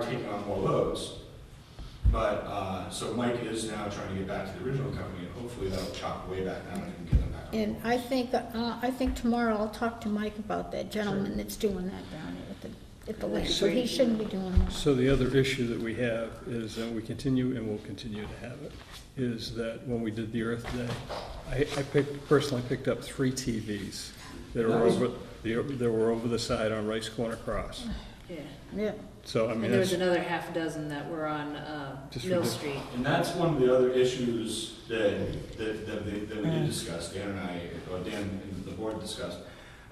taking on more loads. But, uh, so Mike is now trying to get back to the original company, and hopefully that'll chop way back down and get them back on. And I think, uh, I think tomorrow I'll talk to Mike about that gentleman that's doing that down at the, at the lake, so he shouldn't be doing that. So the other issue that we have is, and we continue and will continue to have it, is that when we did the Earth Day, I, I picked, personally picked up three TVs that were over, that were over the side on Rice Corner Cross. Yeah, Yeah, So, I mean, and there was that's, another half dozen that were on, uh, Just Mill ridic- Street. And that's one of the other issues that, that, that, they- that we Mm. did discuss, Dan and I, or Dan and the board discussed,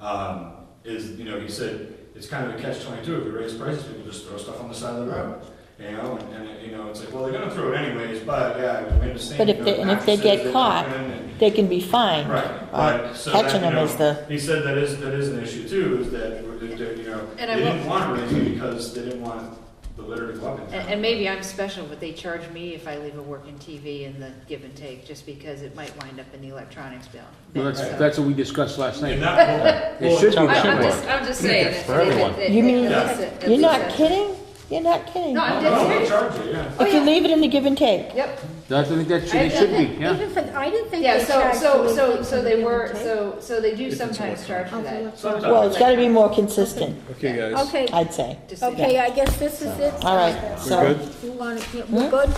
um, is, you know, he said, it's kind of a catch twenty-two, if we raise prices, people just throw stuff on the side of the road, you know, and, and, you know, it's like, well, they're gonna throw it anyways, but, yeah, we understand. But if you know, they- and if they taxes, get they're caught, different, and- They can be fined. Right, Uh, but, so that, Catching you them know, is the. he said that is, that is an issue too, is that, we're- that, that, you know, they And I didn't will- want to raise it because they didn't want the litter to go up in town. And, and maybe I'm special, but they charge me if I leave a working TV in the give and take, just because it might wind up in the electronics bill. Well, that's, So- that's what we discussed last And night. that, well, It should I- be I'm covered. just, I'm just saying. that- for that- everyone. that- You mean- at least it- at You're not least it- kidding? You're not kidding? No, I'm No, dead they serious. charge you, yeah. If you leave it in the give and take, Yep, That's, I think that should, it should be, yeah. Even for, I didn't think yeah, they so, charged. for so, so, leaking so they the were, intake. so, so they do If it's sometimes charge Oh, for for that. Sometimes. well, it's gotta be more consistent, okay, Yeah. guys, Okay, I'd say. Just- okay, I guess this is it. All right, we good? so, You wanna, yeah, Hmm? we're good?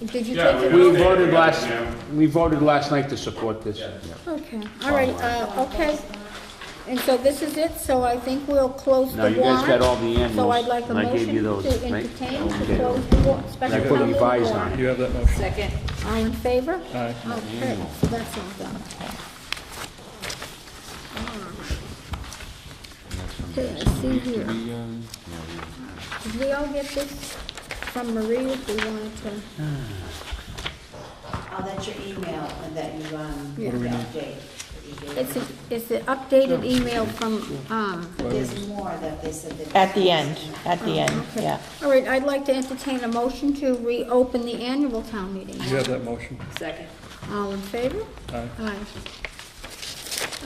Did you take Yeah, it? we're We good. voted last, Yeah. we voted last night to support this. Okay, all right, uh, okay. And so this is it, so I think we'll close the No, warrant. you guys got all the So I'd animals, like a and I gave motion you those, to right? entertain, to Okay. close the warrant, I special put town meeting revised on warrant. you have that motion. Second, All in favor? Aye. Okay, so that's all done. Okay, I see here. Did we all get this from Marie if we wanted to? Oh, that's your email and that you, What um, do the update. that you gave. It's, a- it's the updated email from, um, But There's more that they said that. at the end, at the end, okay. yeah. All right, I'd like to entertain a motion to reopen the annual town meeting. You have that motion. second. All in favor? Aye. Aye.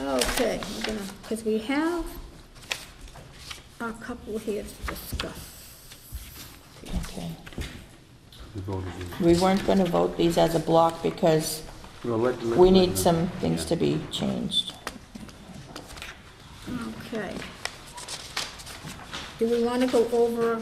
Okay, we're gonna, because we have a couple here to discuss. Okay. We voted it. We weren't gonna vote these as a block because Well, let- let- we need some things to be changed. Okay. Do we want to go over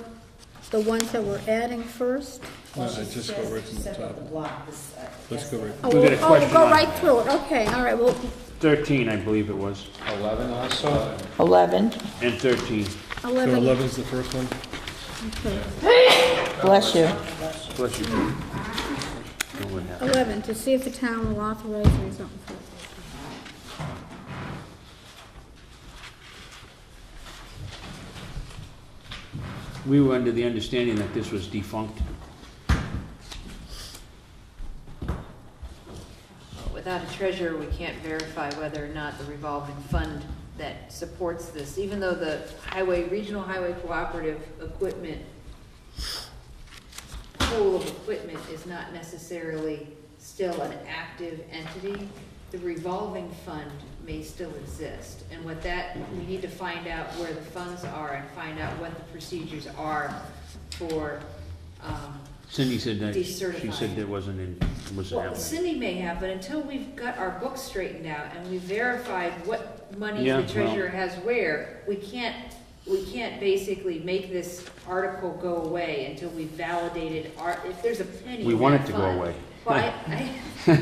the ones that we're adding first? No, I just go right from the Except for top. the block, this, uh, Let's yes, go right, Oh, We got a we'll- oh, question Go on right through it, okay, all right, well, Thirteen, I believe it was, Eleven also. Eleven, and thirteen. so 11, eleven's the first one, okay, bless you. Bless you. Don't let that- 11, to see if the town will authorize or something. We were under the understanding that this was defunct. Without a treasurer, we can't verify whether or not the revolving fund that supports this, even though the highway, regional highway cooperative equipment, pool of equipment is not necessarily still an active entity, the revolving fund may still exist. And what that, we need to find out where the funds are and find out what the procedures are for, um, Cindy said that, she Decertified. said there wasn't, in- wasn't well, happening. Cindy may have, but until we've got our books straightened out and we've verified what money Yeah, the well- treasurer has where, we can't, we can't basically make this article go away until we've validated our, if there's a penny We in want that it to go fund. away. Well, I, I,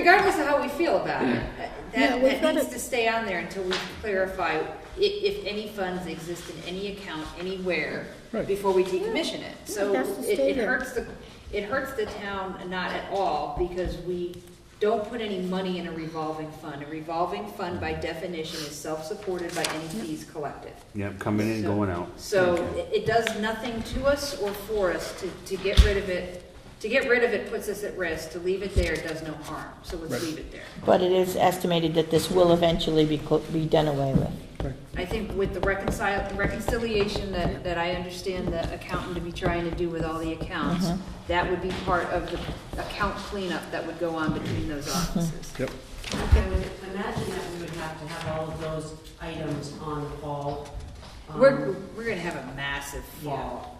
regardless of how we feel about it, uh, Yeah, that, we've that gotta- needs to stay on there until we clarify i- if any funds exist in any account, anywhere, Right. before we decommission it. So that's the it, it standard. hurts the, it hurts the town not at all because we don't put any money in a revolving fund. A revolving fund by definition is self-supported by any fees collected. Yep, coming in, So- going out. So it- it does nothing to us or for us to, to get rid of it. To get rid of it puts us at risk. To leave it there does no harm. So let's leave it there. But it is estimated that this will eventually be, clo- be done away with. I think with the reconcile, reconciliation that, that I understand the accountant to be trying to do with all the accounts, that would be part of the account cleanup that would go on between those offices. yep. I would imagine that we would have to have all of those items on the fall. um, Um, We're, we're gonna have a massive fall